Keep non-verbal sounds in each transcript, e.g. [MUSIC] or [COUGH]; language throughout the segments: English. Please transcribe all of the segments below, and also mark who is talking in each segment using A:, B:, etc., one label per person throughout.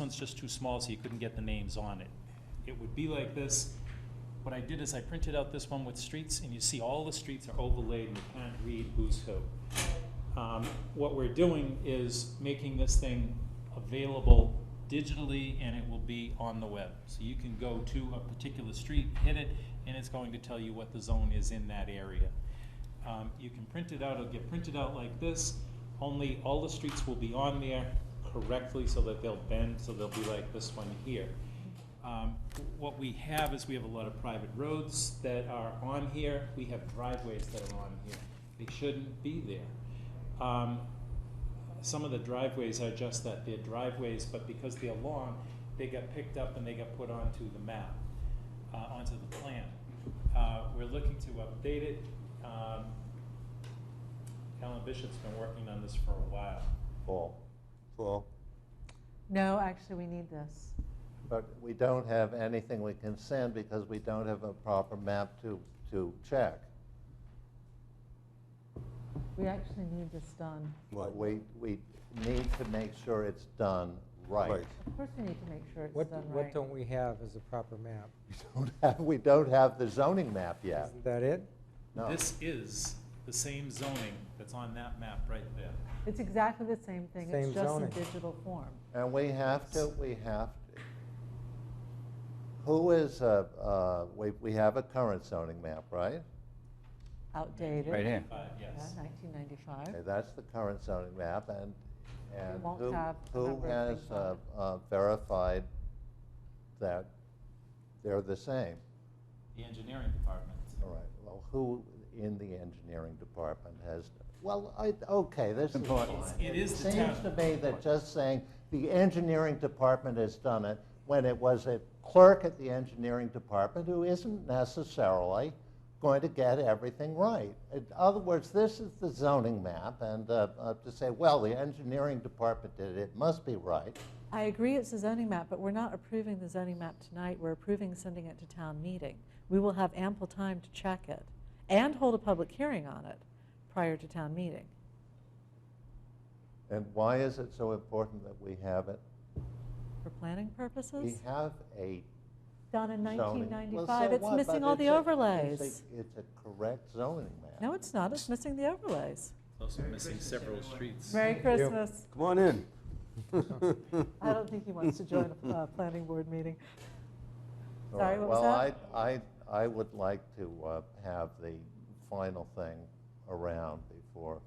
A: one's just too small, so you couldn't get the names on it. It would be like this. What I did is I printed out this one with streets, and you see all the streets are overlaid, and you can't read who's who. Um, What we're doing is making this thing available digitally, and it will be on the web. So you can go to a particular street, hit it, and it's going to tell you what the zone is in that area. Um, You can print it out, it'll get printed out like this, only all the streets will be on there correctly so that they'll bend, so they'll be like this one here. Um, What we have is we have a lot of private roads that are on here, we have driveways that are on here. They shouldn't be there. Um, Some of the driveways are just that, they're driveways, but because they're long, they got picked up and they got put onto the map, uh, onto the plan. Uh, We're looking to update it. Um, Alan Bishop's been working on this for a while.
B: Paul. Paul,
C: No, actually, we need this.
B: but we don't have anything we can send because we don't have a proper map to, to check.
C: We actually need this done.
B: But We, we need to make sure it's done right.
D: Right.
C: Of course, we need to make sure
E: What,
C: it's done
E: what
C: right.
E: don't we have as a proper map?
B: We don't [LAUGHS] have, we don't have the zoning map yet.
E: Isn't that it?
B: No.
A: This is the same zoning that's on that map right there.
C: It's exactly the same thing,
E: Same
C: it's just in
E: zoning.
C: digital form.
B: And we have to, we have, to- who is, uh, uh, we, we have a current zoning map, right?
C: Outdated.
F: Right here.
A: Uh, yes.
C: Nineteen
B: Okay,
C: ninety-five.
B: that's the current zoning map, and, and
C: won't
B: who,
C: have a
B: who
C: number of
B: has
C: things on
B: uh, uh, verified that they're the same?
A: The engineering department.
B: All right, well, who in the engineering department has, well, I, okay, this is fine.
F: Important.
A: It is the
B: Seems
A: town.
B: to me that just saying the engineering department has done it, when it was a clerk at the engineering department who isn't necessarily going to get everything right. In other words, this is the zoning map, and uh, uh, to say, well, the engineering department did it, it must be right.
C: I agree it's a zoning map, but we're not approving the zoning map tonight, we're approving sending it to town meeting. We will have ample time to check it and hold a public hearing on it prior to town meeting.
B: And why is it so important that we have it?
C: For planning
B: We
C: purposes,
B: have a
C: done in nineteen
B: zoning. Well, so
C: ninety-five, it's
B: what?
C: missing
B: But
C: all the
B: it's a- it's a-
C: overlays.
B: It's a correct zoning map.
C: No, it's not, it's missing the overlays.
A: Also missing several streets.
C: Merry
E: you.
C: Christmas.
D: Come on in.
C: I don't think he wants to join a uh, planning board meeting.
B: All
C: Sorry,
B: right.
C: what was that?
B: Well, I, I, I would like to uh, have the final thing around before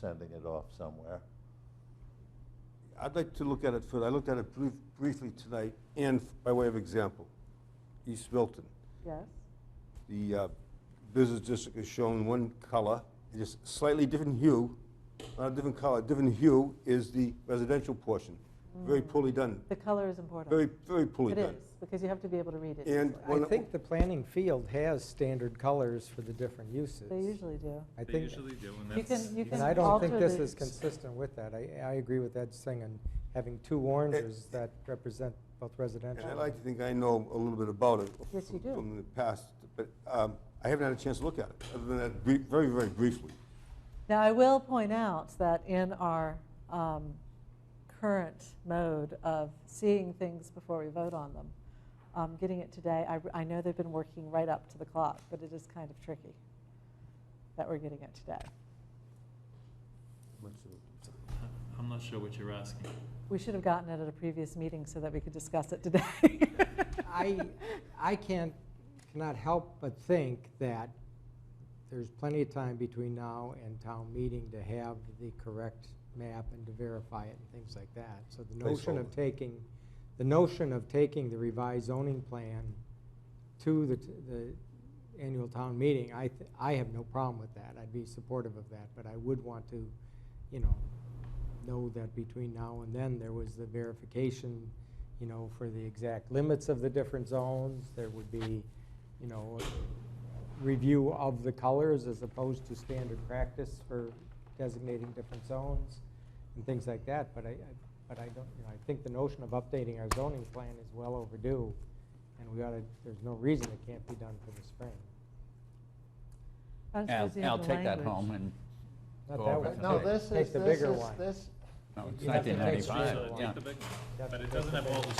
B: sending it off somewhere.
D: I'd like to look at it further. I looked at it brief- briefly tonight, and by way of example, East Milton.
C: Yes,
D: The uh, business district is shown one color, just slightly different hue, not a different color, different hue is the residential portion. Very poorly done,
C: the color is important.
D: very, very poorly
C: Mm. It
D: done.
C: is, because you have to be able to read it.
D: And
E: I
D: when-
E: think the planning field has standard colors for the different uses.
C: They usually do.
E: I
A: They
E: think,
A: usually do, and
C: You
A: that's.
C: can, you can alter the.
E: and I don't think this is consistent with that. I, I agree with Ed Singen, having two oranges that represent both
D: And
E: residential.
D: I like to think I know a little bit about it.
C: Yes, you do.
D: From the past, but um, I haven't had a chance to look at it, other than that, brief- very, very briefly.
C: Now, I will point out that in our um, current mode of seeing things before we vote on them, um, getting it today, I, I know they've been working right up to the clock, but it is kind of tricky that we're getting it today.
A: I'm not sure what you're asking.
C: We should have gotten it at a previous meeting so that we could discuss it today.
E: I, I can't, cannot help but think that there's plenty of time between now and town meeting to have the correct map and to verify it and things like that. So the notion of
D: Placeholder.
E: taking, the notion of taking the revised zoning plan to the, t- the annual town meeting, I, th- I have no problem with that. I'd be supportive of that, but I would want to, you know, know that between now and then, there was the verification, you know, for the exact limits of the different zones. There would be, you know, a review of the colors as opposed to standard practice for designating different zones and things like that. But I, I- but I don't, you know, I think the notion of updating our zoning plan is well overdue. And we ought to, there's no reason it can't be done for the spring.
C: I was
F: I'll
C: busy with
F: I'll
C: the
F: take
C: language.
F: that home and
E: Not
F: Go
E: that
F: over
E: one.
F: it
B: No,
F: Okay.
B: this
E: Take
B: is,
E: the
B: this
E: bigger
B: is,
E: one.
B: this,
F: No, it's
E: You'd have to take
F: nineteen ninety-five,
A: So
F: yeah.
A: take the big one. But it doesn't have all the